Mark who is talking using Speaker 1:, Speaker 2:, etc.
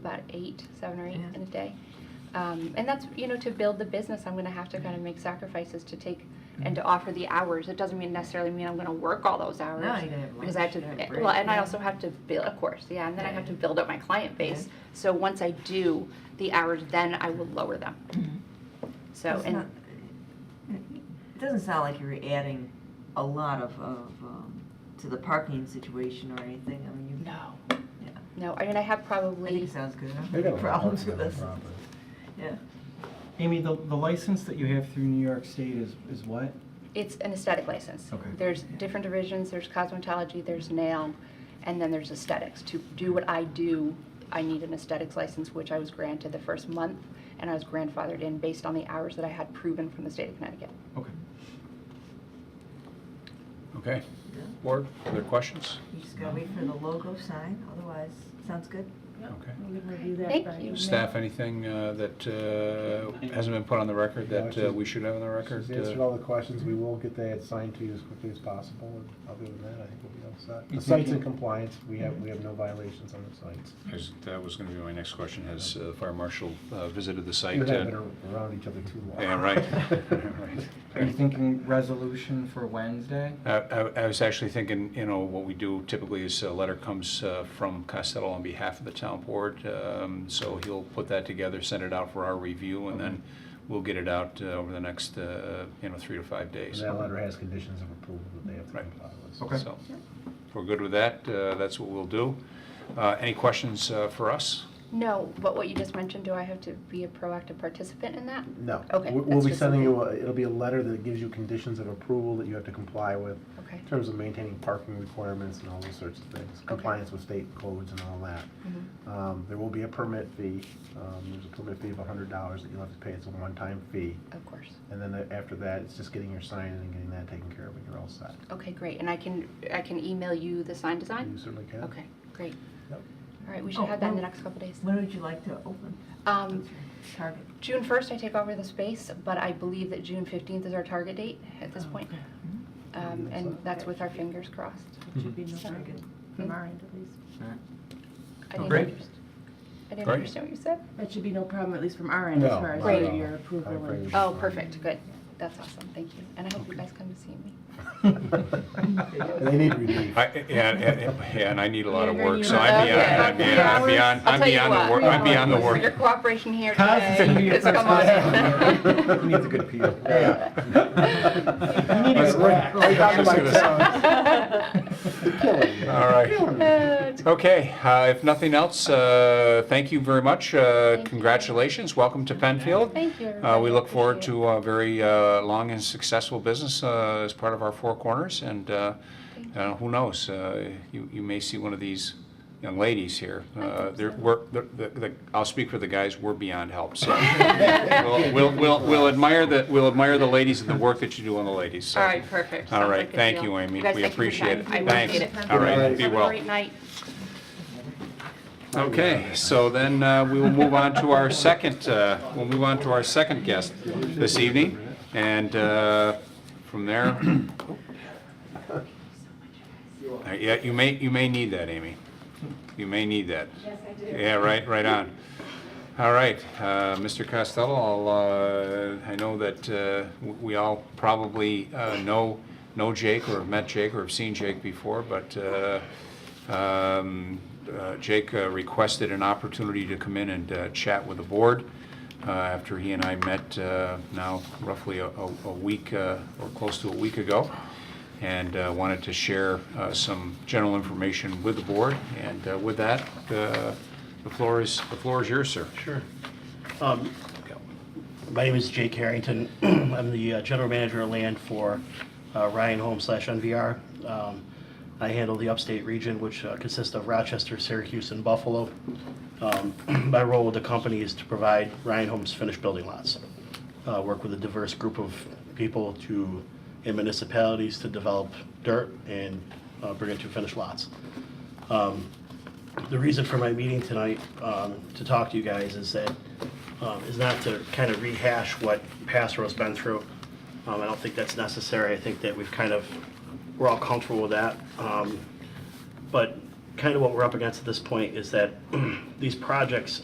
Speaker 1: eight, seven or eight
Speaker 2: Yeah.
Speaker 1: in a day. Um, and that's, you know, to build the business, I'm going to have to kind of make sacrifices to take and to offer the hours. It doesn't mean necessarily mean I'm going to work all those hours.
Speaker 2: No, you gotta have
Speaker 1: because I have
Speaker 2: lunch,
Speaker 1: to,
Speaker 2: you gotta have
Speaker 1: well,
Speaker 2: break,
Speaker 1: and I
Speaker 2: yeah.
Speaker 1: also have to build, of course, yeah, and then I have
Speaker 2: Yeah.
Speaker 1: to build up my client base. So once I do the hours, then I will lower them. So,
Speaker 2: Mm-hmm. It's
Speaker 1: and
Speaker 2: not- It doesn't sound like you're adding a lot of, of, um, to the parking situation or anything, I mean, you,
Speaker 1: no,
Speaker 2: yeah.
Speaker 1: no, I mean, I have
Speaker 2: I think
Speaker 1: probably,
Speaker 2: it sounds good, I don't have
Speaker 3: They
Speaker 2: any
Speaker 3: don't have
Speaker 2: problems with
Speaker 3: parking on
Speaker 2: this,
Speaker 3: their property.
Speaker 2: yeah.
Speaker 4: Amy, the, the license that you have through New York State is, is what?
Speaker 1: it's an aesthetic license.
Speaker 4: Okay.
Speaker 1: There's different divisions, there's cosmetology, there's nail, and then there's aesthetics. To do what I do, I need an aesthetics license, which I was granted the first month, and I was grandfathered in based on the hours that I had proven from the state of Connecticut.
Speaker 4: Okay.
Speaker 5: Okay.
Speaker 2: Yeah.
Speaker 5: Board, other questions?
Speaker 2: You just gotta wait for the logo sign, otherwise, sounds good.
Speaker 5: Okay.
Speaker 6: We can review that
Speaker 1: Thank
Speaker 6: by
Speaker 1: you.
Speaker 6: email.
Speaker 5: Staff, anything uh, that uh, hasn't been put on the record
Speaker 3: No,
Speaker 5: that uh,
Speaker 3: she's-
Speaker 5: we should have on the record?
Speaker 3: She's
Speaker 5: Uh,
Speaker 3: answered all the questions, we will get that signed to you as quickly as possible, and other than that, I think we'll be all set.
Speaker 4: You
Speaker 3: The site's
Speaker 4: think-
Speaker 3: in compliance, we have, we have no violations on the sites.
Speaker 5: is- That was going to be my next question. Has uh, Fire Marshal uh, visited the site?
Speaker 3: You haven't
Speaker 5: uh,
Speaker 3: been around each other too long.
Speaker 5: Yeah, right. Right.
Speaker 4: Are you thinking resolution for Wednesday?
Speaker 5: I- I I was actually thinking, you know, what we do typically is a letter comes uh, from Costello on behalf of the town board. um, So he'll put that together, send it out for our review, and then we'll get it out uh, over the next, uh, you know, three to five
Speaker 3: And
Speaker 5: days.
Speaker 3: that letter has conditions of approval that they have to
Speaker 5: Right.
Speaker 3: comply with.
Speaker 4: Okay.
Speaker 5: So if we're good with that, uh, that's what we'll do. Uh, Any questions uh, for us?
Speaker 1: No, but what you just mentioned, do I have to be a proactive participant in that?
Speaker 3: No.
Speaker 1: Okay,
Speaker 3: We- We'll
Speaker 1: that's
Speaker 3: be
Speaker 1: just
Speaker 3: sending you, a-
Speaker 1: something-
Speaker 3: it'll be a letter that gives you conditions of approval that you have to comply with
Speaker 1: Okay.
Speaker 3: in terms of maintaining parking requirements and all those sorts of things, compliance with state codes and all that.
Speaker 1: Mhm.
Speaker 3: Um, There will be a permit fee. Um, There's a permit fee of $100 that you'll have to pay. It's a one-time fee.
Speaker 1: Of course.
Speaker 3: And then the- after that, it's just getting your sign and getting that taken care of, and you're all set.
Speaker 1: Okay, great. And I can, I can email you the sign
Speaker 3: You
Speaker 1: design?
Speaker 3: certainly can.
Speaker 1: Okay, great.
Speaker 3: Yep.
Speaker 1: All right, we should have that in the
Speaker 2: Oh,
Speaker 1: next couple days.
Speaker 2: When would you like to open?
Speaker 1: Um,
Speaker 2: Target.
Speaker 1: June 1st, I take over the space, but I believe that June 15th is our target date at this
Speaker 2: Oh,
Speaker 1: point.
Speaker 2: okay. Mhm.
Speaker 1: Um, And that's with our fingers crossed.
Speaker 6: It should be no
Speaker 1: Mhm.
Speaker 6: target, from our end at least.
Speaker 1: I didn't
Speaker 5: Mm-hmm. Oh, Great.
Speaker 1: underst- I didn't
Speaker 5: Great.
Speaker 1: understand what you said.
Speaker 6: That should be no problem, at least from our end, as
Speaker 3: No,
Speaker 6: far as
Speaker 1: Right.
Speaker 6: your-
Speaker 1: no,
Speaker 6: your
Speaker 3: no.
Speaker 6: approval.
Speaker 3: I'm
Speaker 6: and-
Speaker 3: afraid-
Speaker 1: Oh, perfect, good. That's awesome, thank you. And I hope you guys come to see me.
Speaker 3: They need relief.
Speaker 5: I- Yeah, and- and- yeah, and I need a lot of
Speaker 6: You're gonna
Speaker 5: work,
Speaker 6: need
Speaker 5: so
Speaker 6: a lot
Speaker 5: I'm
Speaker 6: of
Speaker 5: beyond, I'm
Speaker 6: work.
Speaker 5: beyond, I'm
Speaker 6: Yeah.
Speaker 5: beyond,
Speaker 1: I'll
Speaker 5: I'm
Speaker 1: tell you
Speaker 5: beyond the
Speaker 1: what,
Speaker 5: work, I'm beyond the
Speaker 1: for Your
Speaker 5: work.
Speaker 1: cooperation here
Speaker 4: Constantine,
Speaker 1: today.
Speaker 4: you're
Speaker 1: It's come on.
Speaker 4: Constantine.
Speaker 3: Who needs a good peel?
Speaker 4: Yeah.
Speaker 3: You
Speaker 4: need
Speaker 3: Right-
Speaker 4: a crack.
Speaker 3: right down to
Speaker 5: Just
Speaker 3: my
Speaker 5: gonna-
Speaker 3: tongue. Killing me.
Speaker 5: All right.
Speaker 3: Killing me.
Speaker 1: Uh,
Speaker 5: Okay, uh, if nothing else, uh, thank you very much. uh,
Speaker 1: Thank you.
Speaker 5: Congratulations, welcome to Penfield.
Speaker 1: Thank you,
Speaker 5: Uh,
Speaker 1: everybody.
Speaker 5: We
Speaker 1: I
Speaker 5: look forward
Speaker 1: appreciate
Speaker 5: to a very uh, long and successful business uh, as part of our Four Corners, and uh,
Speaker 1: Thank
Speaker 5: uh, who knows, uh, you you may see one of these young ladies here.
Speaker 1: I hope
Speaker 5: Uh, they're-
Speaker 1: so.
Speaker 5: we're- the- the- the- I'll speak for the guys, we're beyond help, so. we'll- We'll we'll- we'll admire the, we'll admire the ladies and the work that you do on the ladies. so.
Speaker 1: All right, perfect.
Speaker 5: All
Speaker 1: Sounds
Speaker 5: right,
Speaker 1: like a
Speaker 5: thank
Speaker 1: deal.
Speaker 5: you, Amy.
Speaker 1: guys,
Speaker 5: We
Speaker 1: thank you for your
Speaker 5: appreciate it.
Speaker 1: time. I
Speaker 5: Thanks.
Speaker 1: appreciate it.
Speaker 5: All right,
Speaker 3: Thanks.
Speaker 5: be
Speaker 1: Have
Speaker 5: well.
Speaker 1: a great night.
Speaker 5: Okay, so then uh, we will move on to our second, uh, we'll move on to our second guest this evening. And uh, from there, Uh, yeah, you may, you may need that, Amy. You may need that. Yes, I do. Yeah, right, right on. All right, uh, Mr. Costello, I'll, uh, I know that uh, w- we all probably uh, know, know Jake or have met Jake or have seen Jake before, but uh, um, uh, Jake uh, requested an opportunity to come in and uh, chat with the board uh, after he and I met uh, now roughly a a- a week uh, or close to a week ago, and uh, wanted to share uh, some general information with the board. And uh, with that, uh, the floor is, the floor is yours, sir.
Speaker 7: Sure. Um, My name is Jake Harrington. I'm the uh, general manager of land for uh, Ryan Home slash NVR. Um, I handle the upstate region, which uh, consists of Rochester, Syracuse, and Buffalo. Um, My role with the company is to provide Ryan Homes finished building lots. Uh, Work with a diverse group of people to, in municipalities, to develop dirt and uh, bring it to finished lots. Um, the reason for my meeting tonight, um, to talk to you guys is that, um, is not to kind of rehash what Passerell's been through. Um, I don't think that's necessary. I think that we've kind of, we're all comfortable with that. Um, but kind of what we're up against at this point is that these projects